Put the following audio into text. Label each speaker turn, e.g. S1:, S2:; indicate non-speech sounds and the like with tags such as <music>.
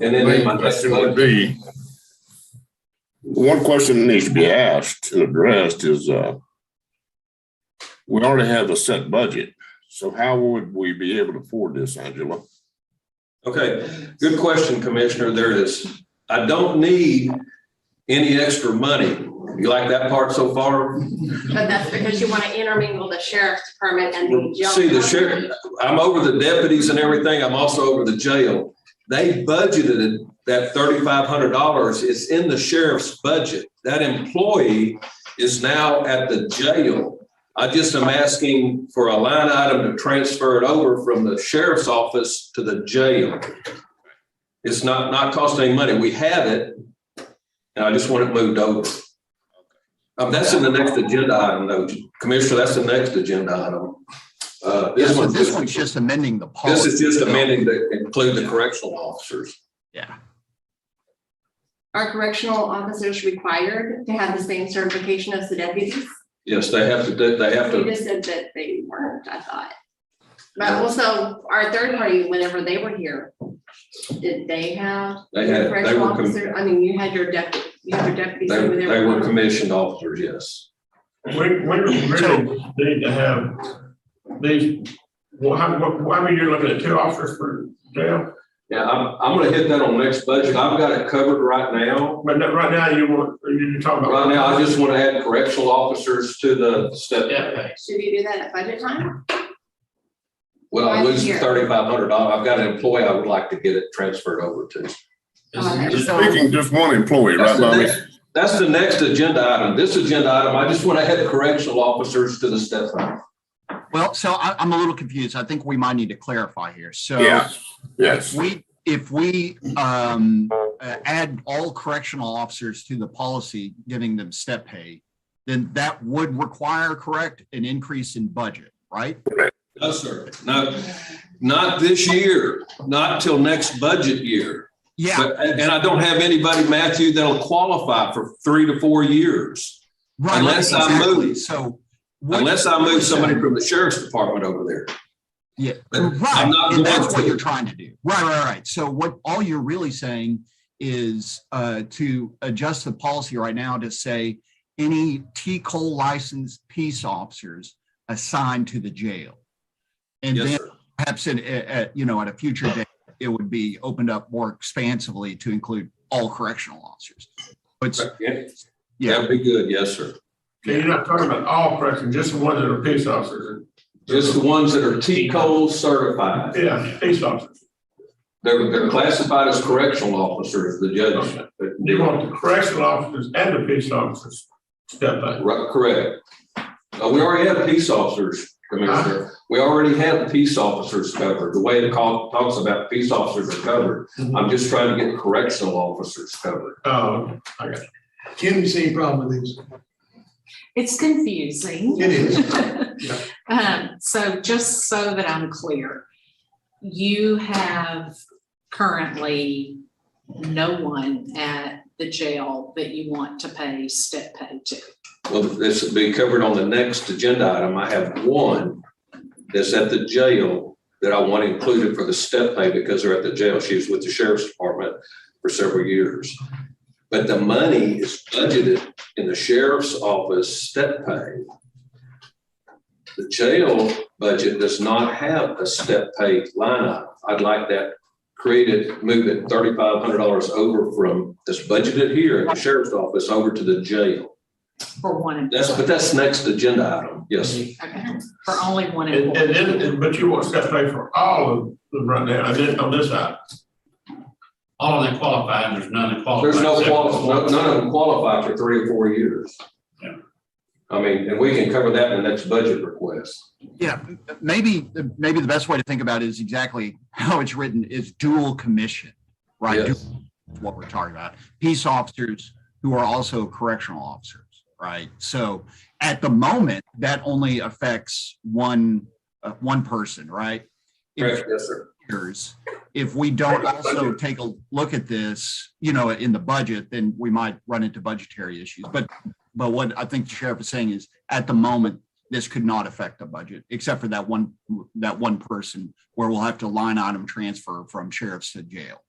S1: And
S2: My
S1: then my
S2: question would be, one question that needs to be asked and addressed is, uh, we already have a set budget, so how would we be able to afford this, Angela?
S1: Okay, good question, Commissioner. There is, I don't need any extra money. You like that part so far?
S3: But that's because you want to intermingle the sheriff's department and the jail.
S1: See, the sheriff, I'm over the deputies and everything. I'm also over the jail. They budgeted that thirty-five hundred dollars. It's in the sheriff's budget. That employee is now at the jail. I just am asking for a line item to transfer it over from the sheriff's office to the jail. It's not, not costing any money. We have it. And I just want it moved over. Um, that's in the next agenda item though, Commissioner. That's the next agenda item. Uh,
S4: Yeah,
S1: this
S4: so
S1: one,
S4: this one's just amending the
S1: this
S4: policy.
S1: is just amending to include the correctional officers.
S4: Yeah,
S3: Are correctional officers required to have the same certification as the deputies?
S1: Yes, they have to, do. they have
S3: You
S1: to,
S3: just said that they weren't, I thought. But also, our third party, whenever they were here, did they have
S1: they had, they
S3: correctional
S1: were, com-
S3: officer? I mean, you had your deputy, you had your deputies
S1: they
S3: over there.
S1: they were commissioned officers, yes.
S5: We, we really need to have these, well, how, what- I mean, you're looking at two officers per jail,
S1: Yeah, I'm, I'm gonna hit that on next budget. I've got it covered right now.
S5: but no- right now you want, you're talking about.
S1: Right now, I just want to add correctional officers to the step.
S5: Yeah, okay.
S3: Should you do that at budget time?
S1: Well, I
S3: Right
S1: lose
S3: here.
S1: thirty-five hundred dollars. I've got an employee I would like to get it transferred over to.
S3: Okay,
S2: You're
S3: so-
S2: Speaking just one employee, right,
S1: That's the
S2: Bobby?
S1: next- That's the next agenda item. This agenda item, I just want to add correctional officers to the step. fund.
S4: well, so I, I'm a little confused. I think we might need to clarify here. So
S2: Yes, yes.
S4: we, if we um, uh, add all correctional officers to the policy, giving them step pay, then that would require, correct, an increase in budget, right?
S1: No, sir. No, not this year, not till next budget year.
S4: Yeah,
S1: But- And and I don't have anybody, Matthew, that'll qualify for three to four years,
S4: right.
S1: unless I
S4: exactly.
S1: move.
S4: So. what-
S1: unless I move somebody from the sheriff's department over there.
S4: Yeah,
S1: But I'm
S4: right,
S1: not going
S4: and that's what
S1: to.
S4: you're trying to do. Right, right, right. So what, all you're really saying is uh, to adjust the policy right now to say any T-Cole licensed peace officers assigned to the jail. And
S1: Yes,
S4: then
S1: sir.
S4: perhaps at, at, you know, at a future date, it would be opened up more expansively to include all correctional officers. But,
S1: Yeah,
S4: yeah,
S1: That'd be good, yes, sir.
S5: So you're not talking about all corrections, just the ones that are peace officers.
S1: Just the ones that are T Cole certified.
S5: Yeah, peace officers.
S1: They're, they're classified as correctional officers, the judge.
S5: You want the correctional officers and the peace officers step back.
S1: Right, correct. Uh, we already have peace officers, Commissioner. We already have peace officers covered. The way it call, talks about peace officers are covered. I'm just trying to get correctional officers covered.
S5: Oh, I got you.
S6: Kim, the same problem with these.
S7: It's confusing.
S6: It is.
S7: <laughs> Um, so just so that I'm clear, you have currently no one at the jail that you want to pay step pay to.
S1: Well, this will be covered on the next agenda item. I have one that's at the jail that I want included for the step pay because they're at the jail. She was with the sheriff's department for several years. But the money is budgeted in the sheriff's office step pay. The jail budget does not have a step pay line item. I'd like that created, move it thirty-five hundred dollars over from this budgeted here in the sheriff's office over to the jail.
S7: For one
S1: That's, but
S7: employee,
S1: that's next agenda item, <laughs> yes.
S7: okay, for only one
S5: And, and
S7: employee.
S5: then, and- but you want step pay for all of them right now, and then on this side.
S8: All of them qualified, there's none that qualified.
S1: There's no qualify, none of them qualify for three or four years.
S8: Yeah.
S1: I mean, and we can cover that in the next budget request.
S4: yeah, maybe, maybe the best way to think about it is exactly how it's written is dual commission, right?
S1: Yes.
S4: is what we're talking about. Peace officers who are also correctional officers, right? So at the moment, that only affects one, uh, one person, right?
S1: Correct, yes, sir.
S4: If- If we don't also take a look at this, you know, in the budget, then we might run into budgetary issues. But, but what I think the sheriff is saying is, at the moment, this could not affect the budget, except for that one, that one person where we'll have to line item transfer from sheriffs to jail.